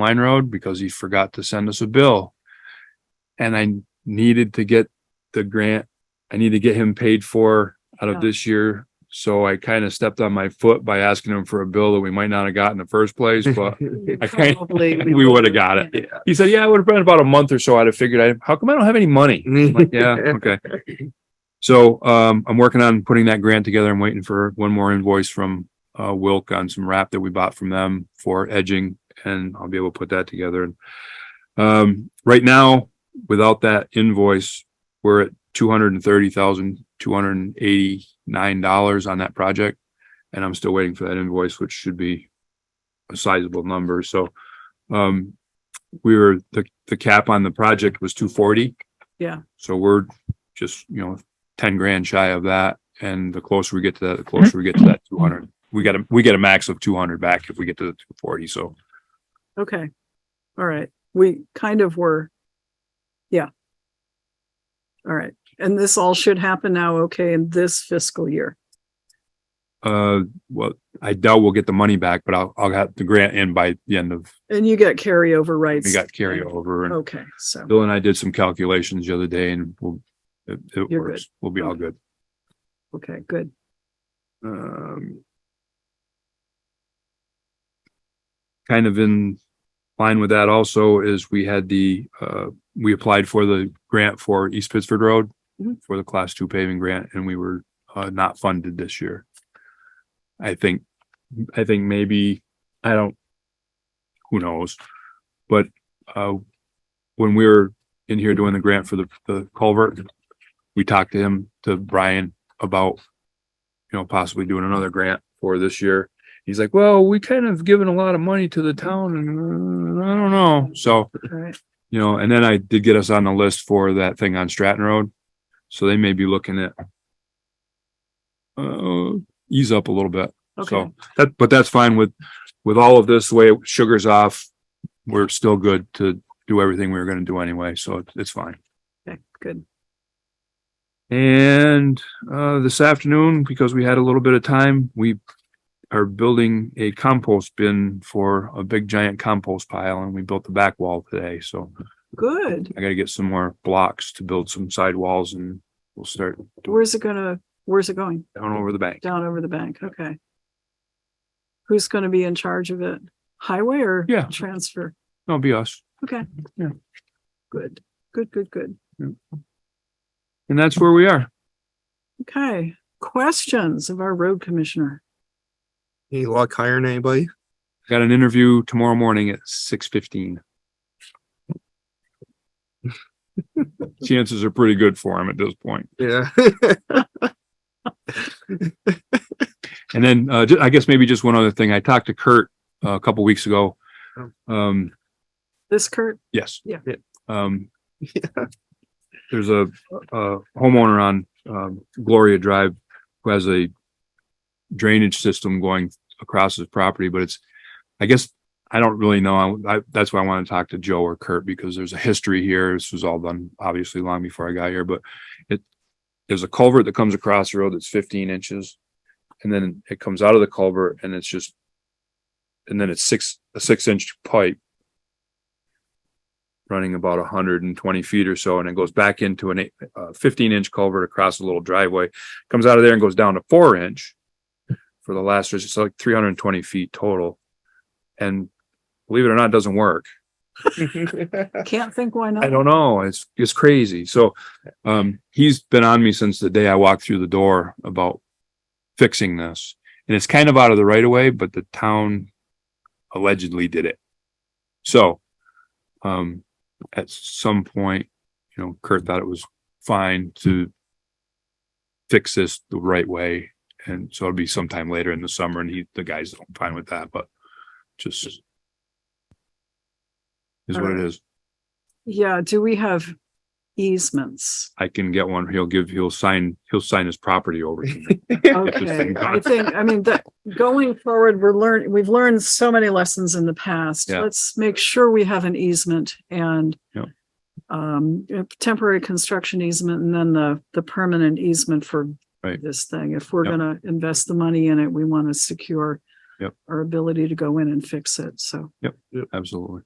Line Road because he forgot to send us a bill. And I needed to get the grant, I need to get him paid for out Oh. of this year. So I kind of stepped on my foot by asking him for a bill that we might not have got in the first place, but I can't- Probably we would have got it. He said, yeah, it would have been about a month or so. I'd have figured, I, how come I don't have any money? I'm like, yeah, okay. So, um, I'm working on putting that grant together. I'm waiting for one more invoice from, uh, Wilk on some wrap that we bought from them for edging and I'll be able to put that together. Um, right now, without that invoice, we're at two hundred and thirty thousand, two hundred and eighty-nine dollars on that project. And I'm still waiting for that invoice, which should be a sizable number. So, um, we were, the, the cap on the project was two forty. Yeah. So we're just, you know, ten grand shy of that. And the closer we get to that, the closer we get to that two hundred. We got a, we get a max of two hundred back if we get to the two forty. So Okay. All right. We kind of were. Yeah. All right. And this all should happen now, okay, in this fiscal year. Uh, well, I doubt we'll get the money back, but I'll, I'll have the grant in by the end of, And you get carryover rights. we got carryover and Okay, so, Bill and I did some calculations the other day and we'll, it, it You're works. We'll be all good. okay, good. Um, kind of in line with that also is we had the, uh, we applied for the grant for East Pittsford Road Mhm. for the class two paving grant and we were, uh, not funded this year. I think, I think maybe, I don't, who knows? But, uh, when we were in here doing the grant for the, the culvert, we talked to him, to Brian about you know, possibly doing another grant for this year. He's like, well, we kind of given a lot of money to the town and uh, I don't know. So, All right. you know, and then I did get us on the list for that thing on Stratton Road. So they may be looking at uh, ease up a little bit. Okay, So that, but that's fine with, with all of this, the way sugar's off, we're still good to do everything we were going to do anyway. So it's- it's fine. okay, good. And uh, this afternoon, because we had a little bit of time, we are building a compost bin for a big giant compost pile and we built the back wall today. So Good. I gotta get some more blocks to build some side walls and we'll start Where's it gonna, where's it going? down over the bank. Down over the bank, okay. Who's gonna be in charge of it? Highway or? Yeah. Transfer? That'll be us. Good, good, good, good. And that's where we are. Okay, questions of our road commissioner. Any luck hiring anybody? Got an interview tomorrow morning at six fifteen. Chances are pretty good for him at this point. Yeah. And then, uh, ju- I guess maybe just one other thing. I talked to Kurt uh, a couple weeks ago. Oh. Um, This Kurt, yes. Yeah. Yeah. Um, Yeah. there's a, a homeowner on, um, Gloria Drive who has a drainage system going across his property, but it's, I guess, I don't really know. I, I- that's why I want to talk to Joe or Kurt because there's a history here. This was all done obviously long before I got here, but it, there's a culvert that comes across the road that's fifteen inches. And then it comes out of the culvert and it's just, and then it's six, a six inch pipe running about hundred and twenty feet or so, and it goes back into an eight, uh, fifteen inch culvert across a little driveway. Comes out of there and goes down to four inch for the last, it's like three hundred and twenty feet total. And believe it or not, it doesn't work. can't think why not. I don't know. It's, it's crazy. So, um, he's been on me since the day I walked through the door about fixing this. And it's kind of out of the right of way, but the town allegedly did it. So, um, at some point, you know, Kurt thought it was fine to fix this the right way. And so it'll be sometime later in the summer and he, the guys don't fine with that, but just is what it is. Yeah, do we have easements? I can get one. He'll give, he'll sign, he'll sign his property over to me. Okay, think not. I think, I mean, that, going forward, we're learning, we've learned so many lessons in the past. Yeah. Let's make sure we have an easement and Yep. um, a temporary construction easement and then the, the permanent easement for Right. this thing. If we're Yep. gonna invest the money in it, we want to secure Yep. our ability to go in and fix it, so. Absolutely.